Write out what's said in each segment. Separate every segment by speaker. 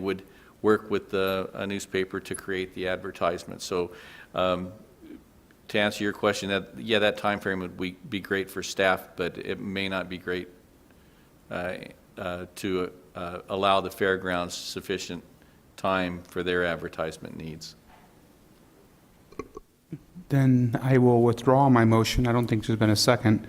Speaker 1: would work with the, a newspaper to create the advertisement. So um, to answer your question, that, yeah, that timeframe would be, be great for staff, but it may not be great uh, uh, to uh, allow the fairgrounds sufficient time for their advertisement needs.
Speaker 2: Then I will withdraw my motion. I don't think there's been a second.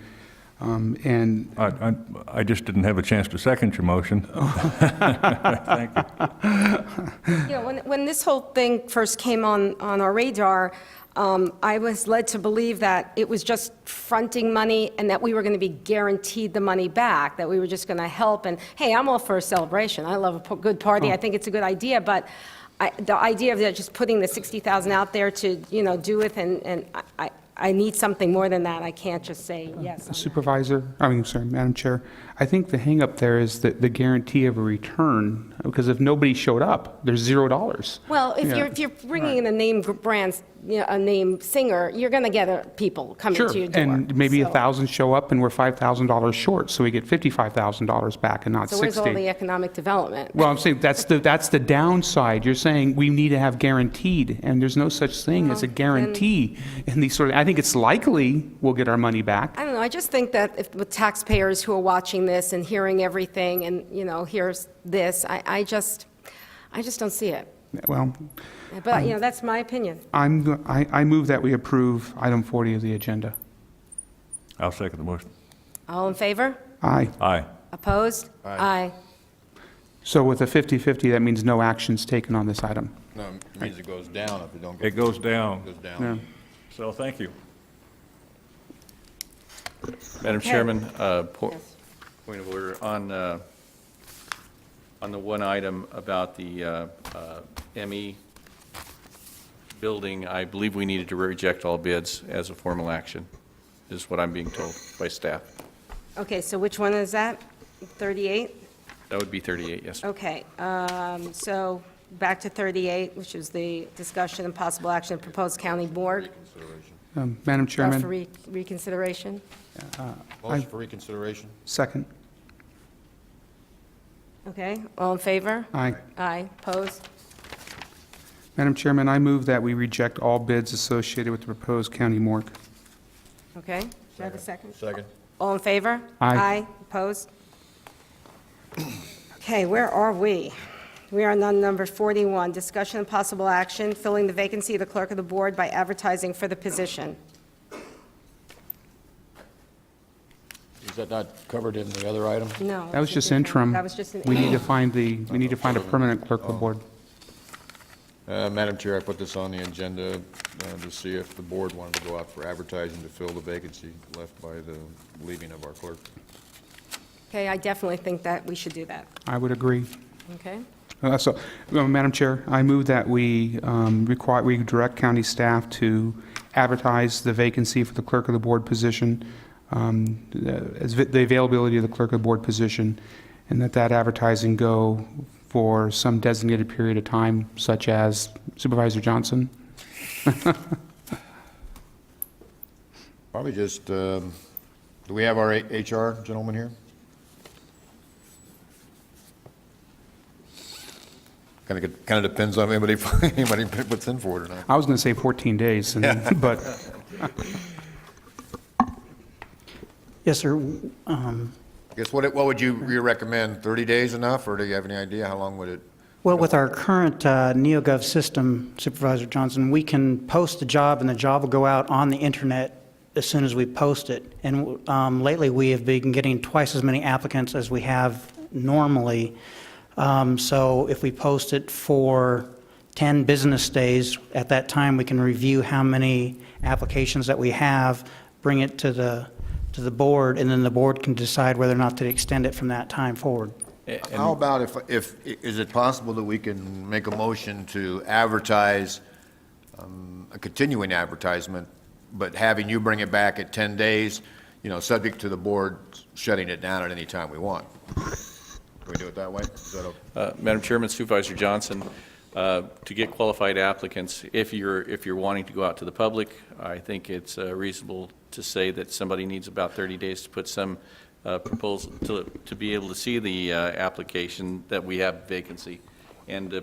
Speaker 2: Um, And
Speaker 3: I, I, I just didn't have a chance to second your motion. Thank you.
Speaker 4: You know, when, when this whole thing first came on, on our radar, um, I was led to believe that it was just fronting money and that we were going to be guaranteed the money back, that we were just going to help. And hey, I'm all for a celebration. I love a p- good
Speaker 2: Oh.
Speaker 4: party. I think it's a good idea, but I, the idea of that just putting the 60,000 out there to, you know, do with, and, and I- I, I need something more than that. I can't just say yes. on that.
Speaker 2: Supervisor, I mean, sorry, Madam Chair, I think the hangup there is the the guarantee of a return, because if nobody showed up, there's zero dollars.
Speaker 4: Well, if
Speaker 2: Yeah.
Speaker 4: you're, if you're bringing in a name gr- brand, you know, a name singer, you're going to get uh, people coming
Speaker 2: Sure,
Speaker 4: to your door.
Speaker 2: and maybe a
Speaker 4: So-
Speaker 2: 1,000 show up and we're $5,000 short, so we get $55,000 back and not
Speaker 4: So
Speaker 2: 60.
Speaker 4: where's all the economic development?
Speaker 2: Well, I'm saying, that's the, that's the downside. You're saying we need to have guaranteed, and there's no such thing as a guarantee in these sort of, I think it's likely we'll get our money back.
Speaker 4: I don't know, I just think that if, with taxpayers who are watching this and hearing everything and, you know, here's this, I, I just, I just don't see it.
Speaker 2: Well,
Speaker 4: But, you know, that's my opinion.
Speaker 2: I'm, go- I, I move that we approve item 40 of the agenda.
Speaker 3: I'll second the motion.
Speaker 4: All in favor?
Speaker 2: Aye.
Speaker 3: Aye.
Speaker 4: Opposed? Aye.
Speaker 2: So with a 50-50, that means no actions taken on this item.
Speaker 5: No, it means it goes down if it don't go.
Speaker 3: It goes
Speaker 5: Goes
Speaker 3: down,
Speaker 2: Yeah.
Speaker 5: down.
Speaker 3: so thank you.
Speaker 1: Madam
Speaker 4: Okay.
Speaker 1: Chairman, uh, po-
Speaker 4: Yes.
Speaker 1: point of order, on, uh, on the one item about the uh, uh, ME building, I believe we needed to reject all bids as a formal action, is what I'm being told by staff.
Speaker 4: Okay, so which one is that? 38?
Speaker 1: That would be 38, yes.
Speaker 4: Okay, um, so back to 38, which is the discussion and possible action of proposed county board
Speaker 2: Um, Madam
Speaker 4: uh, for
Speaker 2: Chairman,
Speaker 4: re- reconsideration.
Speaker 5: Motion for reconsideration?
Speaker 2: second.
Speaker 4: Okay, all in favor?
Speaker 2: Aye.
Speaker 4: Aye. Opposed?
Speaker 2: Madam Chairman, I move that we reject all bids associated with the proposed county morgue.
Speaker 4: Okay, do I have a second?
Speaker 5: Second?
Speaker 4: All in favor?
Speaker 2: Aye.
Speaker 4: opposed? Okay, where are we? We are on number 41, discussion and possible action, filling the vacancy of the clerk of the board by advertising for the position.
Speaker 5: Is that not covered in the other item?
Speaker 4: No.
Speaker 2: That was
Speaker 4: it's a
Speaker 2: just
Speaker 4: different-
Speaker 2: interim.
Speaker 4: That was just an
Speaker 2: We need to
Speaker 4: interim.
Speaker 2: find the, we need to find a permanent clerk of the board.
Speaker 5: Uh, Madam Chair, I put this on the agenda uh, to see if the board wanted to go out for advertising to fill the vacancy left by the leaving of our clerk.
Speaker 4: Okay, I definitely think that we should do that,
Speaker 2: I would agree.
Speaker 4: okay?
Speaker 2: Uh, So, uh, Madam Chair, I move that we um, require, we direct county staff to advertise the vacancy for the clerk of the board position, um, uh, as vi- the availability of the clerk of the board position, and that that advertising go for some designated period of time, such as Supervisor Johnson.
Speaker 5: Probably just, um, do we have our H- HR gentleman here? Kind of, kind of depends on anybody, anybody puts in for it or not.
Speaker 2: I was going to say 14 days, and- but
Speaker 6: Yes, sir. Um,
Speaker 5: I Guess what, what would you you recommend, 30 days enough, or do you have any idea how long would it?
Speaker 6: Well, with our current uh, NeoGov system, Supervisor Johnson, we can post the job, and the job will go out on the internet as soon as we post it. And um, lately, we have been getting twice as many applicants as we have normally. Um, So if we post it for 10 business days, at that time, we can review how many applications that we have, bring it to the, to the board, and then the board can decide whether or not to extend it from that time forward.
Speaker 5: How about if, if, is it possible that we can make a motion to advertise, um, a continuing advertisement, but having you bring it back at 10 days, you know, subject to the board shutting it down at any time we want? Can we do it that way? Is that okay?
Speaker 1: Uh, Madam Chairman, Supervisor Johnson, uh, to get qualified applicants, if you're, if you're wanting to go out to the public, I think it's uh, reasonable to say that somebody needs about 30 days to put some uh, proposal, to, to be able to see the uh, application that we have vacancy. and uh,